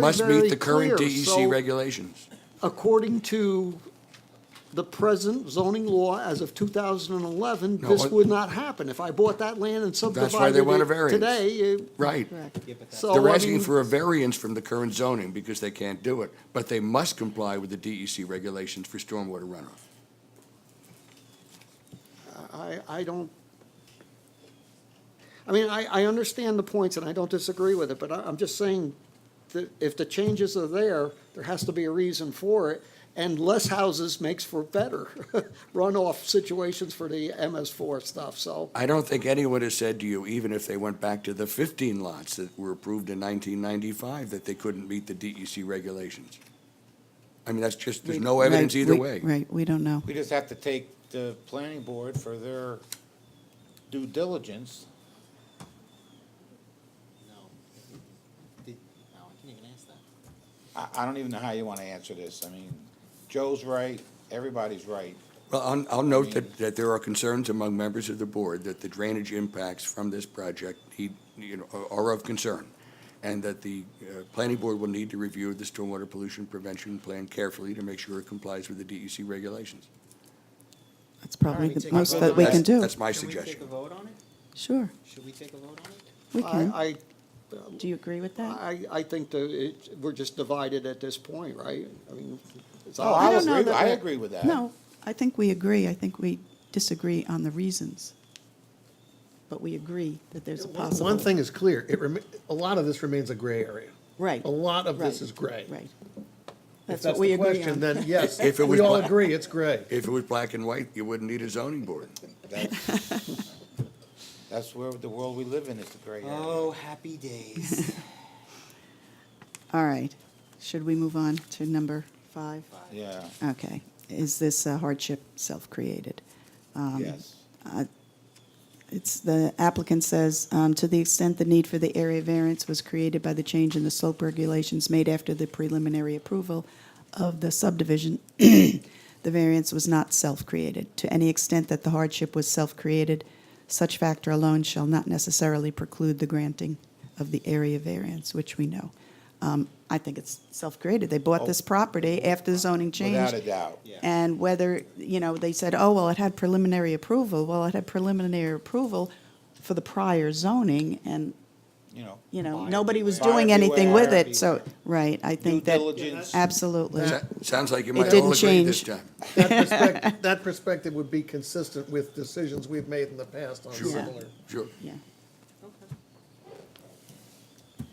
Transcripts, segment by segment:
Must very meet the current clear. DEC So- regulations. According to the present zoning law as of 2011, No, this it- would not happen. If I bought that land and That's subdivided why they want a it variance. today, it- Right. so They're I asking mean, for a variance from the current zoning because they can't do it, but they must comply with the DEC regulations for stormwater runoff. I, I don't, I mean, I, I understand the points and I don't disagree with it, but I, I'm just saying that if the changes are there, there has to be a reason for it, and less houses makes for better runoff situations for the MS four stuff, so. I don't think anyone has said to you, even if they went back to the fifteen lots that were approved in nineteen ninety-five, that they couldn't meet the DEC regulations. I mean, that's just, there's no Right, evidence either we- way. Right, we don't know. We just have to take the planning board for their due diligence. Did, no, I can't even ask that. I, I don't even know how you want to answer this. I mean, Joe's right, everybody's right. Well, I'll, I'll note that, that there are concerns among members of the board that the drainage impacts from this project need, you know, are- are of concern, and that the uh, planning board will need to review the stormwater pollution prevention plan carefully to make sure it complies with the DEC regulations. That's probably Alright, the take a most vote that on we that. can do. That's my Should we take a suggestion. vote on it? Sure, Should we take a vote on it? we can. I, Do you agree with I, that? I, I think that it, we're just divided at this point, right? I mean, it's Oh, I obvious. don't know agree, with- that I that- agree with that. No, I think we agree. I think we disagree on the reasons. But we agree that there's a possible. One thing is clear, it, remi- a lot of this remains a gray area. Right. A lot of this right, is gray. Right. If That's that's what we the agree question, on. then yes, If it we was all black- agree, it's gray. If it was black and white, you wouldn't need a zoning board. That's- That's where the world we live in is the gray area. Oh, happy days. All right. Should we move on to number five? Yeah, Okay. Is this a hardship self-created? Um, yes. It's, the applicant says, um, to the extent the need for the area variance was created by the change in the slope regulations made after the preliminary approval of the subdivision, the variance was not self-created. To any extent that the hardship was self-created, such factor alone shall not necessarily preclude the granting of the area variance, which we know. Um, I think it's self-created. They bought this property after the zoning change. Oh. Without a doubt. Yeah. And whether, you know, they said, oh, well, it had preliminary approval. Well, it had preliminary approval for the prior zoning and, You know. you know, buyer nobody was beware. doing anything with Buyer it. So, beware. right, I think Due that. diligence. Absolutely. Sa- Sounds like you might didn't all agree this change. time. That perspective, that perspective would be consistent with decisions we've made in the past on similar. Sure. Yeah.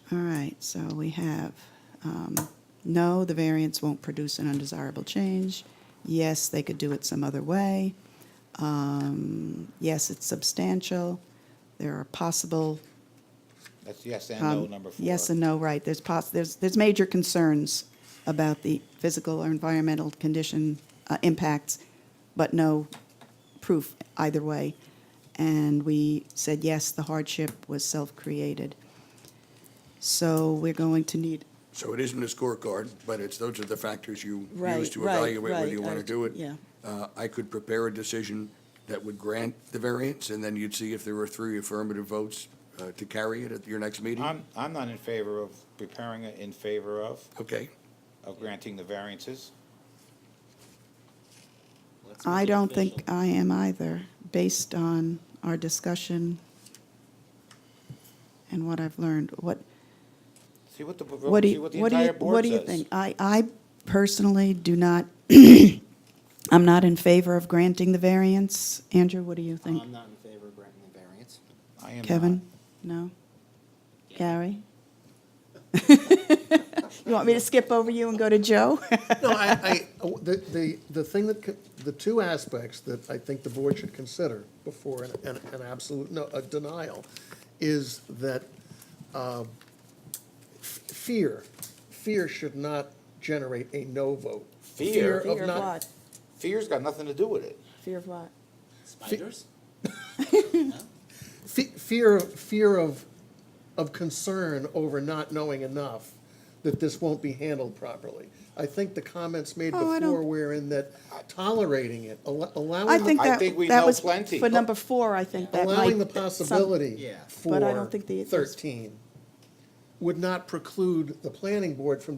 All right, so we have, um, no, the variance won't produce an undesirable change. Yes, they could do it some other way. Um, yes, it's substantial. There are possible That's yes and no, Um, number four. Yes and no, right. There's poss, there's, there's major concerns about the physical or environmental condition uh, impacts, but no proof either way. And we said, yes, the hardship was self-created. So we're going to need. So it isn't a scorecard, but it's, those are the factors you use to evaluate whether you want to do it. Yeah, Uh, I could prepare a decision that would grant the variance, and then you'd see if there were three affirmative votes uh, to carry it at your next meeting. I'm, I'm not in favor of preparing it in favor of, Okay, of granting the variances. Let's I make it don't official. think I am either, based on our discussion and what I've learned. What, See what the, What do see you, what the what do you, entire what board do you says. think? I, I personally do not, I'm not in favor of granting the variance. Andrew, what do you think? Um, I'm not in favor of granting the variance. I am not. Kevin? No? Gary? You want me to skip over you and go to Joe? No, I, I, the, the, the thing that, co- the two aspects that I think the board should consider before an, an an absolute, no, a denial, is that, um, f- fear, fear should not generate a no vote. Fear? of not, Fear's got nothing to do with it. Fear of what? Spiders? fe- fear, fear of, of concern over not knowing enough that this won't be handled properly. I think the comments made Oh, I don't- before were in that tolerating it, al- allowing. I the- think I that, think we that know was, plenty. for number four, I think that might. allowing the that some- possibility Yeah. for But I don't think the- thirteen. would not preclude the planning board from